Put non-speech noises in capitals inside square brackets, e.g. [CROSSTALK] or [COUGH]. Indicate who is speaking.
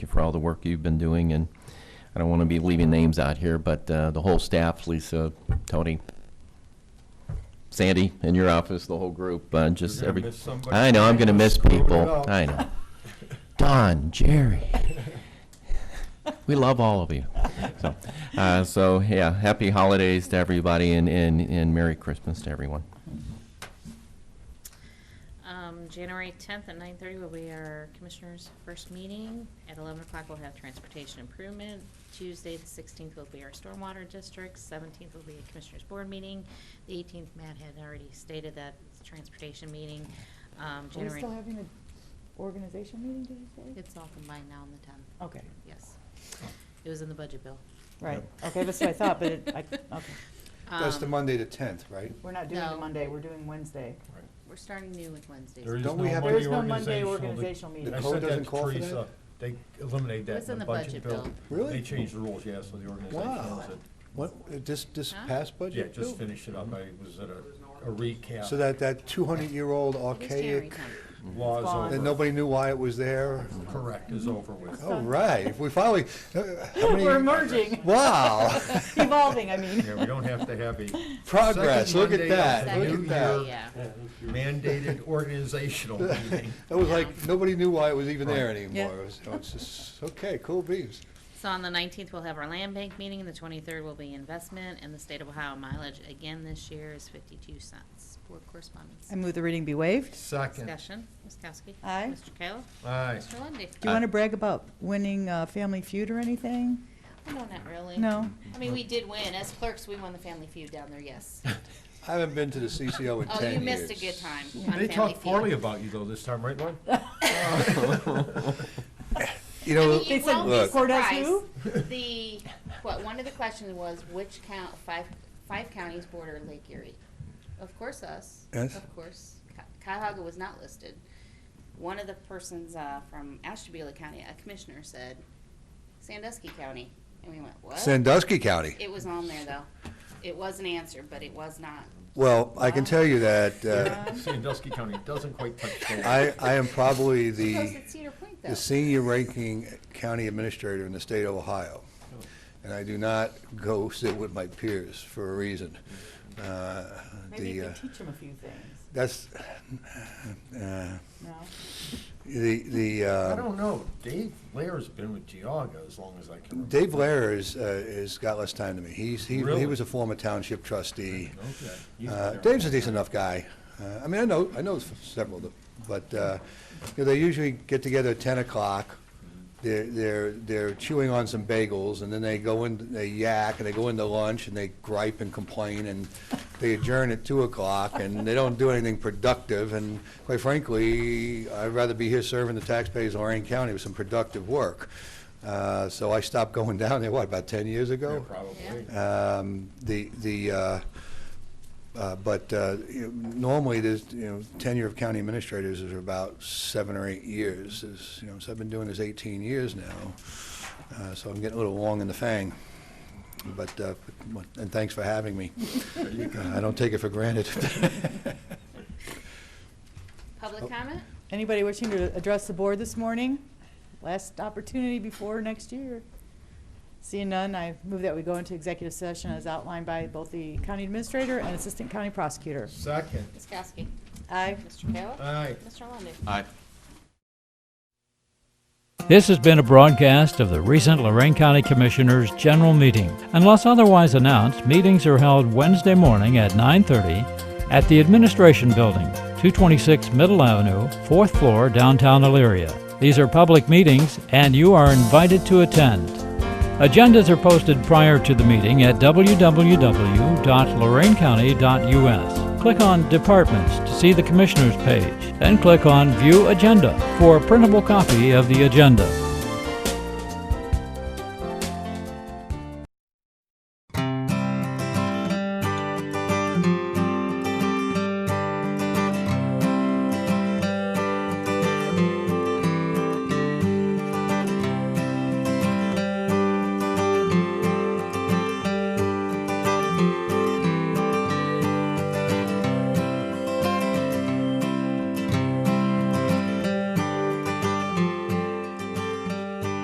Speaker 1: for all the work you've been doing, and I don't want to be leaving names out here, but uh, the whole staff, Lisa, Tony, Sandy, in your office, the whole group, uh, just
Speaker 2: gonna
Speaker 1: every.
Speaker 2: miss somebody.
Speaker 1: I know, I'm going to miss
Speaker 2: Screwed it
Speaker 1: people.
Speaker 2: up.
Speaker 1: I know. Don,
Speaker 2: [LAUGHS]
Speaker 1: Jerry. We love all of you. So, uh, So, yeah, happy holidays to everybody and, and and Merry Christmas to everyone.
Speaker 3: Um, January tenth at nine thirty will be our commissioners' first meeting. At eleven o'clock, we'll have transportation improvement. Tuesday, the sixteenth, will be our stormwater district. Seventeenth will be a commissioners' board meeting. The eighteenth, Matt had already stated that it's a transportation meeting. Um,
Speaker 4: Are we
Speaker 3: January,
Speaker 4: still having an organization meeting, did you say?
Speaker 3: it's all combined now on the tenth,
Speaker 4: Okay,
Speaker 3: yes. It was in the budget bill.
Speaker 4: right, okay, that's what I thought, but it,
Speaker 3: [LAUGHS]
Speaker 4: I, okay.
Speaker 5: That's the
Speaker 3: Um,
Speaker 5: Monday, the 10th, right?
Speaker 4: We're not doing the
Speaker 3: No.
Speaker 4: Monday, we're doing Wednesday.
Speaker 3: We're starting new with Wednesdays.
Speaker 2: There is
Speaker 5: Don't
Speaker 2: no
Speaker 5: we have-
Speaker 2: Monday
Speaker 4: There is no Monday
Speaker 2: organizational.
Speaker 4: organizational
Speaker 2: The-
Speaker 4: meeting.
Speaker 2: I
Speaker 5: The
Speaker 2: said
Speaker 5: code
Speaker 2: that
Speaker 5: doesn't
Speaker 2: to
Speaker 5: call for
Speaker 2: Teresa.
Speaker 5: that?
Speaker 2: They eliminate
Speaker 3: It
Speaker 2: that
Speaker 3: was
Speaker 2: in the budget bill.
Speaker 5: Really?
Speaker 2: They changed the rules, yeah, so the organization
Speaker 5: Wow.
Speaker 2: was it.
Speaker 5: What, uh, this, this
Speaker 3: Huh?
Speaker 5: past
Speaker 2: Yeah,
Speaker 5: budget?
Speaker 2: just
Speaker 5: Bill?
Speaker 2: finished it up. I was at a a recap.
Speaker 5: So that, that 200-year-old
Speaker 3: It is January
Speaker 5: archaic,
Speaker 3: 10th.
Speaker 2: Law
Speaker 4: It's gone.
Speaker 2: is
Speaker 5: that
Speaker 2: over.
Speaker 5: nobody knew why it was there?
Speaker 2: Correct, is over with.
Speaker 5: All right, we finally, uh, how
Speaker 4: We're
Speaker 5: many,
Speaker 4: merging,
Speaker 3: [LAUGHS]
Speaker 5: wow,
Speaker 4: [LAUGHS] evolving, I mean.
Speaker 2: Yeah, we don't have to have a
Speaker 5: progress,
Speaker 2: Second
Speaker 5: look at
Speaker 2: Monday of
Speaker 5: that,
Speaker 2: the
Speaker 5: look
Speaker 2: new
Speaker 5: at that. [LAUGHS]
Speaker 2: year.
Speaker 3: Yeah.
Speaker 2: mandated organizational meeting.
Speaker 5: That was like, nobody knew why it was even there
Speaker 2: Right.
Speaker 5: anymore. It was- so It's just, okay, cool beans.
Speaker 3: So on the nineteenth, we'll have our land bank meeting, the twenty-third will be investment, and the state of Ohio mileage again this year is fifty-two cents. Board correspondence.
Speaker 4: [LAUGHS] I move the reading be waived.
Speaker 2: Second,
Speaker 3: Discussion, Ms. Kowski.
Speaker 4: Aye.
Speaker 3: Mr. Kayla.
Speaker 2: aye.
Speaker 3: Mr. Lundy.
Speaker 4: Do
Speaker 5: Uh,
Speaker 4: you want to brag about winning uh, Family Feud or anything?
Speaker 3: No, not really.
Speaker 4: No? [LAUGHS]
Speaker 3: I mean, we did win. As clerks, we won the Family Feud down there, yes.
Speaker 5: I haven't been to the CCO in 10 years.
Speaker 3: Oh, you missed a good time on
Speaker 2: They
Speaker 3: Family
Speaker 2: talked poorly
Speaker 3: Feud.
Speaker 2: about you though this time, right, Lon?
Speaker 5: You
Speaker 3: I mean,
Speaker 5: know,
Speaker 3: you
Speaker 4: They said
Speaker 3: won't
Speaker 5: look.
Speaker 3: be
Speaker 4: Cordes
Speaker 3: surprised.
Speaker 4: who?
Speaker 3: [LAUGHS]
Speaker 2: [LAUGHS]
Speaker 3: The, what, one of the questions was which count, five, five counties border Lake Erie? Of course us.
Speaker 5: Yes.
Speaker 3: Of course. Ca- Cuyahoga was not listed. One of the persons uh, from Ashtabula County, a commissioner, said Sandusky County. And we went, what?
Speaker 5: Sandusky County.
Speaker 3: It was on there, though. It was an answer, but it was not.
Speaker 5: Well, I can tell you that uh,
Speaker 2: Sandusky County doesn't quite touch the.
Speaker 5: I, I am probably the.
Speaker 3: She posted Cedar Point, though.
Speaker 5: the senior ranking county administrator in the state of Ohio.
Speaker 4: Oh.
Speaker 5: And I do not go sit with my peers for a reason. Uh,
Speaker 4: Maybe you
Speaker 5: The, uh,
Speaker 4: could teach them a few things,
Speaker 5: that's, uh,
Speaker 4: no?
Speaker 5: the, the,
Speaker 2: I
Speaker 5: uh,
Speaker 2: don't know. Dave Lair's been with Geauga as long as I can remember.
Speaker 5: Dave Lehrer is, uh, has got less time than me. He's, he
Speaker 2: Really? Oh.
Speaker 5: he was a former township trustee.
Speaker 2: Okay. He's been
Speaker 5: Uh,
Speaker 2: there.
Speaker 5: Dave's a decent enough guy. Uh, I mean, I know, I know several of them, but uh, you know, they usually get together at 10 o'clock. They're, they're, they're chewing on some bagels, and then they go in, they yak, and they go into lunch, and they gripe and complain, and they adjourn at 2 o'clock, and they don't do anything productive. And quite frankly, I'd rather be here serving the taxpayers of Lorraine County with some productive work. Uh, So I stopped going down there, what, about 10 years
Speaker 2: Yeah,
Speaker 5: ago?
Speaker 2: Probably.
Speaker 5: Um, The, the, uh, uh, but uh, you know, normally, there's, you know, tenure of county administrators is about seven or eight years. Is, you know, so I've been doing this 18 years now, uh, so I'm getting a little long in the fang. But, uh, and thanks for having me. Uh, I don't take it for granted. Oh.
Speaker 3: Public comment?
Speaker 4: Anybody wishing to address the board this morning? Last opportunity before next year. Seeing none, I move that we go into executive session as outlined by both the county administrator and assistant county prosecutor.
Speaker 2: Second,
Speaker 3: Ms. Kowski.
Speaker 4: Aye.
Speaker 3: Mr. Kayla.
Speaker 2: aye.
Speaker 3: Mr. Lundy.
Speaker 1: Aye.
Speaker 6: This has been a broadcast of the recent Lorraine County Commissioners' General Meeting. Unless otherwise announced, meetings are held Wednesday morning at 9:30 at the Administration Building, 226 Middle Avenue, 4th floor, downtown Elyria. These are public meetings and you are invited to attend. Agendas are posted prior to the meeting at www.lorainecounty.us. Click on Departments to see the Commissioners page, then click on View Agenda for a printable copy of the agenda.